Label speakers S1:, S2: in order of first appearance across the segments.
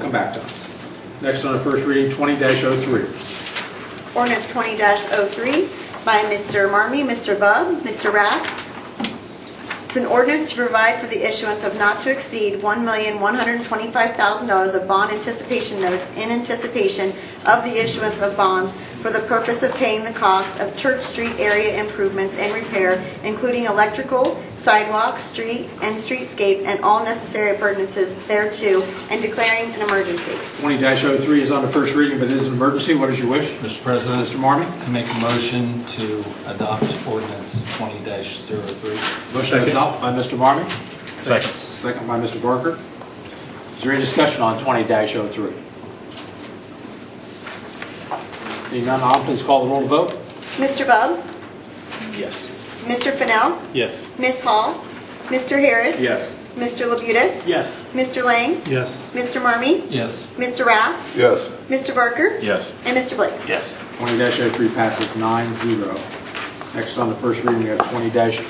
S1: come back to us. Next on the first reading, 20-03.
S2: Ordinance 20-03 by Mr. Marmy, Mr. Bub, Mr. Rath. It's an ordinance to provide for the issuance of not to exceed $1,125,000 of bond anticipation notes in anticipation of the issuance of bonds for the purpose of paying the cost of Church Street area improvements and repair, including electrical, sidewalk, street, and streetscape, and all necessary appurtenances thereto, and declaring an emergency.
S1: 20-03 is on the first reading, but it is an emergency. What is your wish?
S3: Mr. President,
S1: Mr. Marmee?
S3: I make a motion to adopt ordinance 20-03.
S1: Motion to adopt by Mr. Marmee,
S4: Second.
S1: second by Mr. Barker. Is there any discussion on 20-03? Seeing none, I'll please call the roll to vote.
S2: Mr. Bub?
S4: Yes.
S2: Mr. Fennell?
S4: Yes.
S2: Ms. Hall? Mr. Harris?
S1: Yes.
S2: Mr. Labutus?
S1: Yes.
S2: Mr. Lang?
S4: Yes.
S2: Mr. Marmee?
S3: Yes.
S2: Mr. Raff?
S5: yes,
S2: Mr. Barker?
S4: Yes.
S2: And Mr. Blake?
S4: Yes.
S1: 20-03 passes 9-0. Next on the first reading, we have 20-04.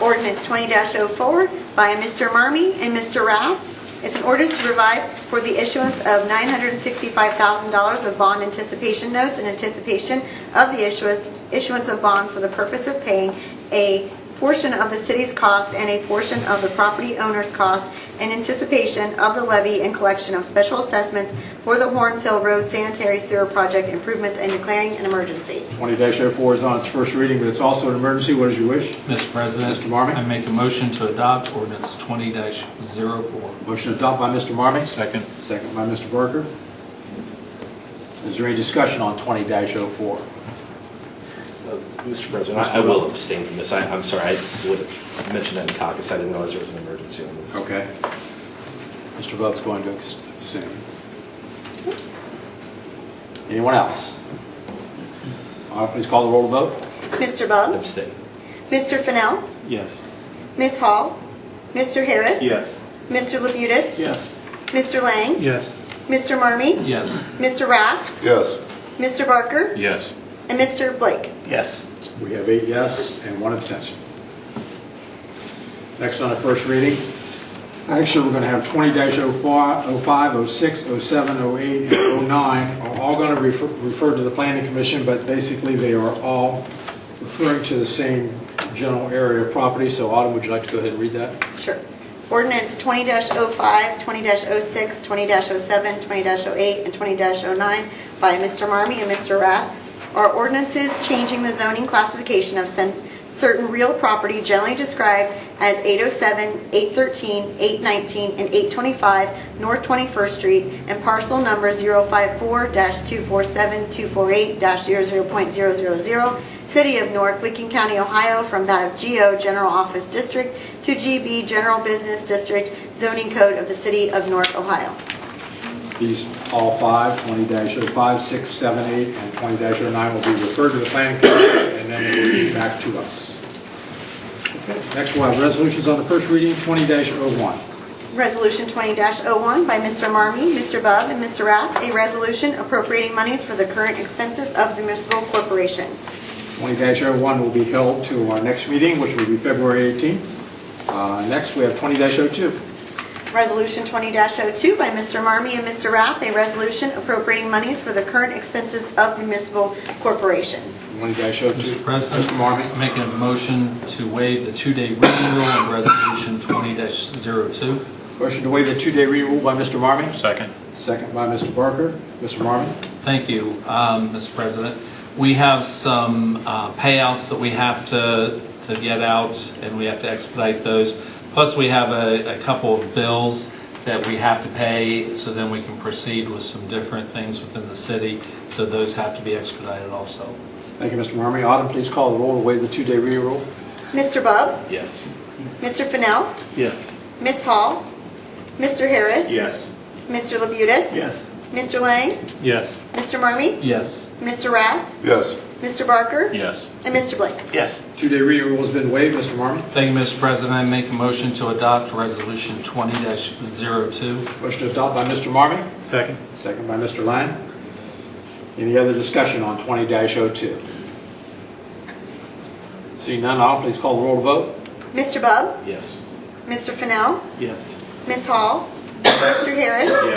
S2: Ordinance 20-04 by Mr. Marmee and Mr. Raff. It's an ordinance to provide for the issuance of $965,000 of bond anticipation notes in anticipation of the issuance issuance of bonds for the purpose of paying a portion of the city's cost and a portion of the property owner's cost in anticipation of the levy and collection of special assessments for the Horns Hill Road Sanitary Sewer Project improvements and declaring an emergency.
S1: 20-04 is on its first reading, but it's also an emergency. What is your wish?
S3: Mr. President.
S1: Mr. Marmee?
S3: I make a motion to adopt ordinance 20-04.
S1: Motion to adopt by Mr. Marmee,
S4: Second.
S1: Second by Mr. Barker. Is there any discussion on 20-04?
S6: Mr. President, I I will abstain from this. I- I'm sorry, I would have mentioned that in caucus. I didn't realize there was an emergency on
S4: Oh.
S6: this.
S1: Okay. Mr. Bub's going to abstain. Anyone else? Uh, Please call the roll to vote.
S2: Mr. Bub?
S6: Abstain.
S2: Mr. Fennell?
S4: Yes.
S2: Ms. Hall? Mr. Harris?
S4: Yes.
S2: Mr. Labutus?
S1: Yes.
S2: Mr. Lang?
S4: Yes.
S2: Mr. Marmee?
S3: Yes.
S2: Mr. Raff?
S5: yes.
S2: Mr. Barker?
S4: Yes.
S2: And Mr. Blake?
S4: Yes.
S1: We have eight yes and one abstention. Next on the first reading, actually, we're going to have 20-05, 06, 07, 08, and 09, are all going to refer refer to the planning commission, but basically, they are all referring to the same general area of property. So Autumn, would you like to go ahead and read that?
S2: Sure. Ordinance 20-05, 20-06, 20-07, 20-08, and 20-09 by Mr. Marmee and Mr. Rath are ordinances changing the zoning classification of cen- certain real property generally described as 807, 813, 819, and 825 North 21st Street and parcel number 054-247-248-00.000 City of Newark, Licking County, Ohio, from that of GO General Office District to GB General Business District zoning code of the City of Newark, Ohio.
S1: These all five, 20-05, 6, 7, 8, and 20-09 will be referred to the planning commission, and then it will be back to us. Okay, Next, we'll have resolutions on the first reading, 20-01.
S2: Resolution 20-01 by Mr. Marmee, Mr. Bub, and Mr. Rath, a resolution appropriating monies for the current expenses of the municipal corporation.
S1: 20-01 will be held to our next meeting, which will be February 18th. Uh, Next, we have 20-02.
S2: Resolution 20-02 by Mr. Marmee and Mr. Rath, a resolution appropriating monies for the current expenses of the municipal corporation.
S1: 20-02.
S3: Mr. President.
S1: Mr. Marmee.
S3: I make a motion to waive the two-day reading rule on resolution 20-02.
S1: Motion to waive the two-day reading rule by Mr. Marmee,
S4: Second.
S1: second by Mr. Barker. Mr. Marmee?
S3: Thank you, um, Mr. President. We have some uh, payouts that we have to, to get out, and we have to expedite those. Plus, we have a, a couple of bills that we have to pay, so then we can proceed with some different things within the city. So those have to be expedited also.
S1: Thank you, Mr. Marmee. Autumn, please call the roll to waive the two-day reading rule.
S2: Mr. Bub,
S6: Yes.
S2: Mr. Fennell,
S4: Yes.
S2: Ms. Hall, Mr. Harris.
S4: Yes.
S2: Mr. Labutus?
S4: Yes.
S2: Mr. Lang?
S4: Yes.
S2: Mr. Marmee?
S3: Yes.
S2: Mr. Rath?
S5: Yes.
S2: Mr. Barker?
S4: Yes.
S2: And Mr. Blake?
S4: Yes.
S1: Two-day reading rule has been waived, Mr. Marmee.
S3: Thank you, Mr. President. I make a motion to adopt resolution 20-02.
S1: Motion to adopt by Mr. Marmee,
S4: Second.
S1: second by Mr. Lang. Any other discussion on 20-02? Seeing none, Autumn, please call the roll to vote.
S2: Mr. Bub?
S6: Yes.
S2: Mr. Fennell?
S4: Yes.
S2: Ms. Hall? Mr. Harris?